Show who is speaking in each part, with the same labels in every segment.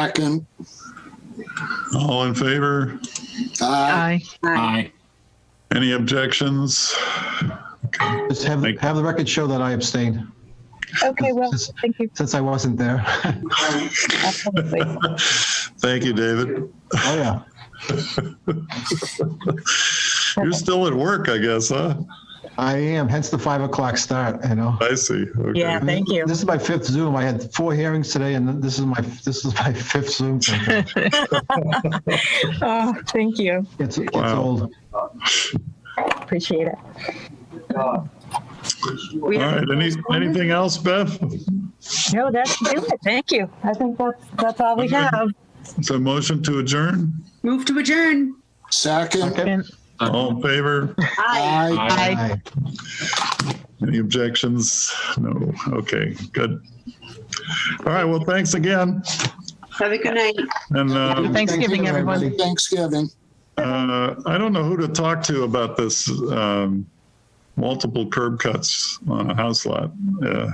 Speaker 1: Second.
Speaker 2: All in favor?
Speaker 1: Aye.
Speaker 3: Aye.
Speaker 4: Aye.
Speaker 2: Any objections?
Speaker 5: Just have,
Speaker 2: Thank-
Speaker 5: have the record show that I abstained,
Speaker 6: Okay, well,
Speaker 5: Yes.
Speaker 6: thank you.
Speaker 5: since I wasn't there. Oh,
Speaker 6: Absolutely.
Speaker 2: Thank you, David.
Speaker 5: Oh, yeah.
Speaker 2: You're still at work, I guess, huh?
Speaker 5: I am, hence the five o'clock start, you know.
Speaker 2: I see. Okay.
Speaker 3: Yeah, thank you.
Speaker 5: This is my fifth Zoom. I had four hearings today and this is my, this is my fifth Zoom. It
Speaker 3: Oh, thank you.
Speaker 5: Gets, it gets
Speaker 2: Wow.
Speaker 5: old.
Speaker 3: Appreciate it.
Speaker 2: All right. Any, anything else, Beth?
Speaker 3: No, that's do it. Thank you. I think that's that's all we have.
Speaker 2: So motion to adjourn?
Speaker 7: Move to adjourn.
Speaker 1: Second.
Speaker 5: Okay.
Speaker 2: All in favor?
Speaker 1: Aye.
Speaker 4: Aye.
Speaker 5: Aye.
Speaker 2: Any objections? No. Okay, good. All right. Well, thanks again.
Speaker 7: Have a good night.
Speaker 2: And
Speaker 5: Happy
Speaker 2: uh,
Speaker 3: Thanksgiving, everyone.
Speaker 5: everybody.
Speaker 1: Thanksgiving.
Speaker 2: uh, I don't know who to talk to about this um, multiple curb cuts on a house lot. Uh,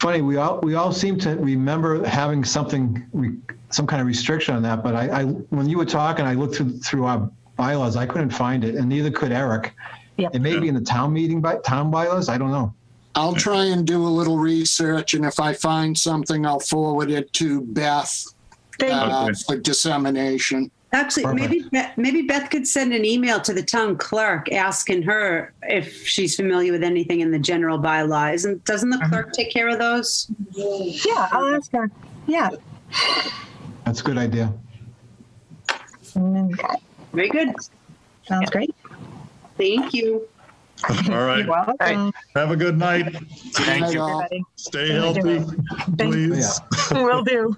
Speaker 5: Funny, we all, we all seem to remember having something, re- some kind of restriction on that, but I, I, when you were talking, I looked through, through our bylaws, I couldn't find it, and neither could Eric.
Speaker 3: Yeah.
Speaker 5: It may be in the town meeting by, town bylaws, I don't know.
Speaker 1: I'll try and do a little research and if I find something, I'll forward it to Beth
Speaker 3: Thank
Speaker 1: uh,
Speaker 2: Okay.
Speaker 1: for dissemination.
Speaker 7: Actually, maybe, Be- maybe Beth could send an email to the town clerk asking her if she's familiar with anything in the general bylaw. Isn't, doesn't the clerk take care of those?
Speaker 3: you. Yeah, I'll ask her. Yeah.
Speaker 5: That's a good idea.
Speaker 3: Mm,
Speaker 7: Very good.
Speaker 3: Sounds great.
Speaker 7: Thank you.
Speaker 2: all right.
Speaker 3: You're welcome.
Speaker 2: Have a good night.
Speaker 1: Good night,
Speaker 4: Thank you.
Speaker 1: all.
Speaker 3: Everybody.
Speaker 2: Stay healthy, please.
Speaker 3: Will do.